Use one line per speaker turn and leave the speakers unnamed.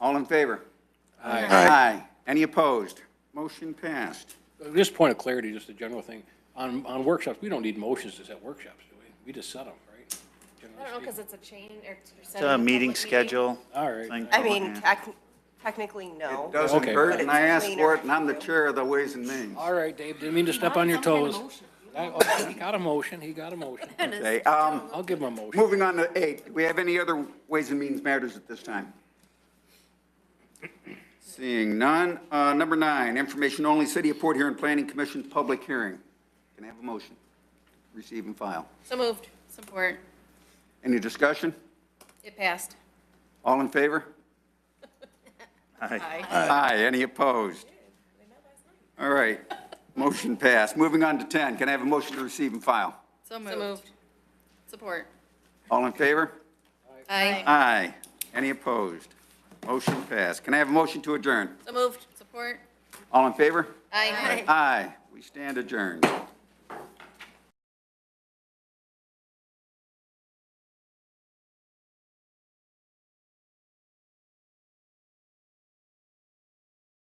in favor? Aye. Any opposed? Motion passed.
Just point of clarity, just a general thing. On, on workshops, we don't need motions to set workshops, do we? We just set them, right?
I don't know,
Generally
because it's a chain or. it's a
It's
set
a
of
meeting
public
schedule.
All right.
thing.
I mean, tec- technically, no.
It doesn't
Okay.
hurt, and I asked for it, and I'm the
But it's
chair of the Ways and Means.
All right, Dave, didn't mean to step on your toes. I- oh, He got a motion, he got a motion.
Okay, um,
I'll give him a motion.
moving on to eight, do we have any other Ways and Means matters at this time? Seeing none, uh, number nine, information only, City of Port Huron Planning Commission public hearing. Can I have a motion? Receive and file.
So moved. Support.
Any discussion?
It passed.
All in favor?
Aye.
Aye. Any opposed? All right, motion passed. Moving on to 10, can I have a motion to receive and file?
So moved. Support.
All in favor?
Aye.
Aye. Any opposed? Motion passed. Can I have a motion to adjourn?
So moved. Support.
All in favor?
Aye.
Aye. We stand adjourned.